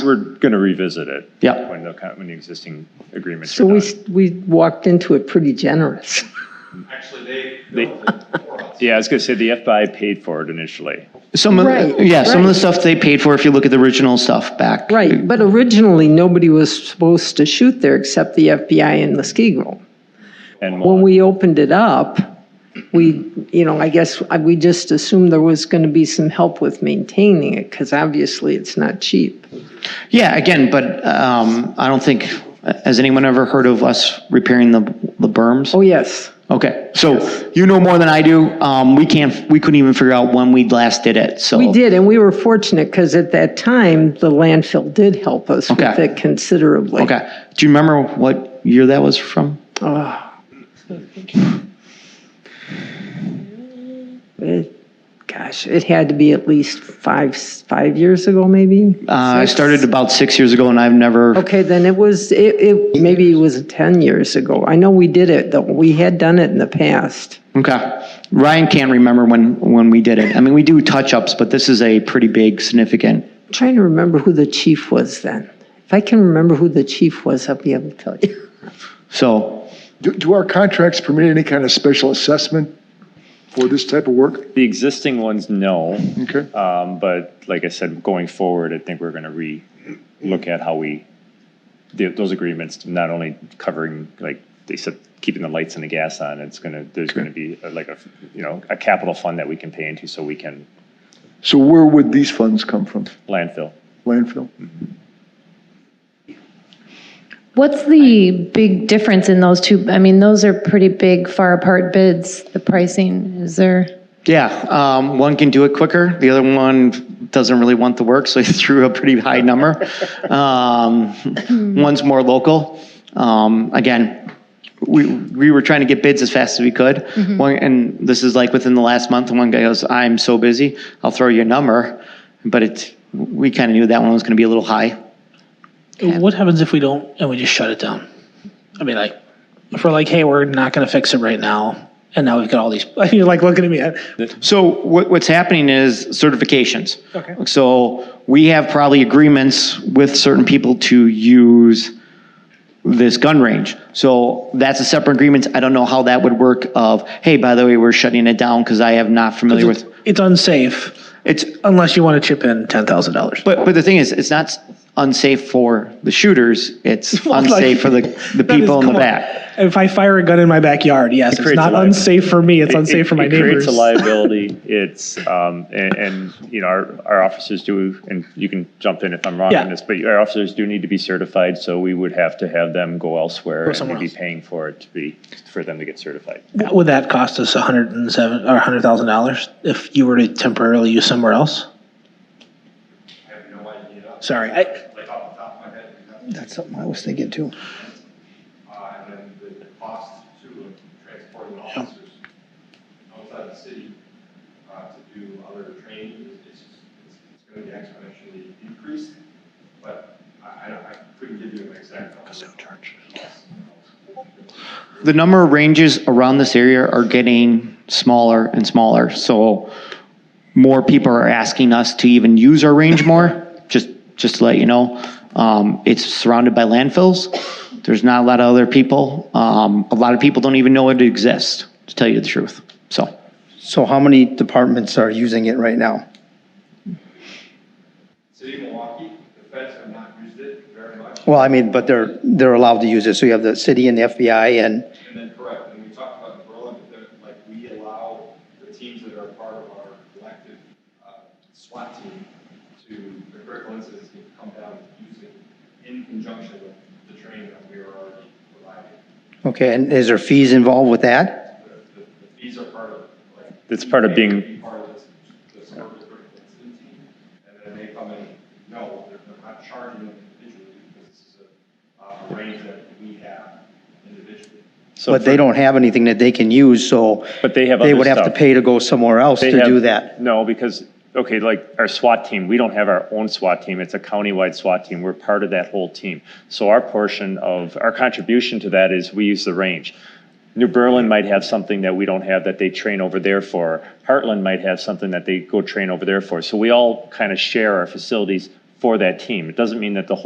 We're going to revisit it. Yeah. When the, con- when the existing agreements So are we, done. s- we walked into it pretty generous. Actually, they They- built it for us. Yeah, I was going to say the FBI paid for it initially. Some of, Right, yeah, some of the right. stuff they paid for, if you look at the original stuff back. Right, but originally, nobody was supposed to shoot there except the FBI and Muskego. And When we'll- we opened it up, we, you know, I guess I- we just assumed there was going to be some help with maintaining it because obviously it's not cheap. Yeah, again, but um, I don't think, has anyone ever heard of us repairing the, the berms? Oh, yes. Okay, so you know more than I do. Um, We can't, we couldn't even figure out when we last did it, so. We did, and we were fortunate because at that time, the landfill did help us with Okay. it considerably. Okay, do you remember what year that was from? Oh. It- Gosh, it had to be at least five, five years ago, maybe? Uh, I Six? started about six years ago and I've never, Okay, then it was, it, it, maybe it was 10 years ago. I know we did it, though. We had done it in the past. okay. Ryan can't remember when, when we did it. I mean, we do touch-ups, but this is a pretty big, significant. I'm trying to remember who the chief was then. If I can remember who the chief was, I'll be able to tell you. So, Do, do our contracts permit any kind of special assessment for this type of work? the existing ones, no. Okay. Um, But like I said, going forward, I think we're going to re-look at how we, the- those agreements, not only covering, like they said, keeping the lights and the gas on, it's going to, there's going to be uh, like a, you know, a capital fund that we can pay into so we can So where would these funds come from? landfill. Landfill? What's the big difference in those two? I mean, those are pretty big, far apart bids, the pricing, is there? yeah, um, one can do it quicker. The other one doesn't really want the work, so he threw a pretty high number. Um, One's more local. Um, Again, we, we were trying to get bids as fast as we could. One, and this is like within the last month, and one guy goes, I'm so busy, I'll throw you a number. But it's, we kind of knew that one was going to be a little high. What happens if we don't and we just shut it down? I mean, like, if we're like, hey, we're not going to fix it right now, and now we've got all these, you're like looking at me. I- So what, what's happening is certifications. Okay. So we have probably agreements with certain people to use this gun range. So that's a separate agreement. I don't know how that would work of, hey, by the way, we're shutting it down because I am not familiar It's, with. it's unsafe It's, unless you want to chip in ten thousand dollars. but, but the thing is, it's not unsafe for the shooters. It's Well, like- unsafe for the, the people in the back. If I fire a gun in my backyard, yes, it's creates a not liability. unsafe for me. It's It- unsafe it- for my It creates neighbors. a liability. It's, um, and, and, you know, our, our officers do, and you can jump in if I'm wrong Yeah. on this, but our officers do need to be certified, so we would have to have them go elsewhere. and somewhere we'd be else. paying for it to be, for them to get certified. Would that cost us a hundred and seven or a hundred thousand dollars if you were to temporarily use somewhere else? I have no idea, Sorry, I, like off the top of my head, we have, that's something I was thinking too. uh, and then the cost to transporting officers outside the city, uh, to do other training, is- it's, it's, it's gonna be exponentially increased, but I, I, don't- I couldn't give you an exact number. Because they'll charge. The number of ranges around this area are getting smaller and smaller, so more people are asking us to even use our range more, just, just to let you know. Um, it's surrounded by landfills. There's not a lot of other people. Um, a lot of people don't even know it exists, to tell you the truth, so. So how many departments are using it right now? City of Milwaukee, the feds have not used it very much. Well, I mean, but they're, they're allowed to use it, so you have the city and the FBI and, And then, correct, and we talked about in Berlin, but there- like, we allow the teams that are part of our collective uh, SWAT team to, the critical incidents can come down and use it in conjunction with the training that we are already providing. okay, and is there fees involved with that? The- The the fees are part of, like. That's part of they being- be Part of this, this work with the critical incident team, and then they come in, no, they're they're not charging them individually, because this is a, uh, a range that we have individually. So But they for- don't have anything that they can use, so But they have they other would have to stuff. pay to go somewhere else They to have- do that. No, because, okay, like our SWAT team, we don't have our own SWAT team. It's a countywide SWAT team. We're part of that whole team. So our portion of, our contribution to that is we use the range. New Berlin might have something that we don't have that they train over there for. Heartland might have something that they go train over there for. So we all kind of share our facilities for that team. It doesn't mean that the whole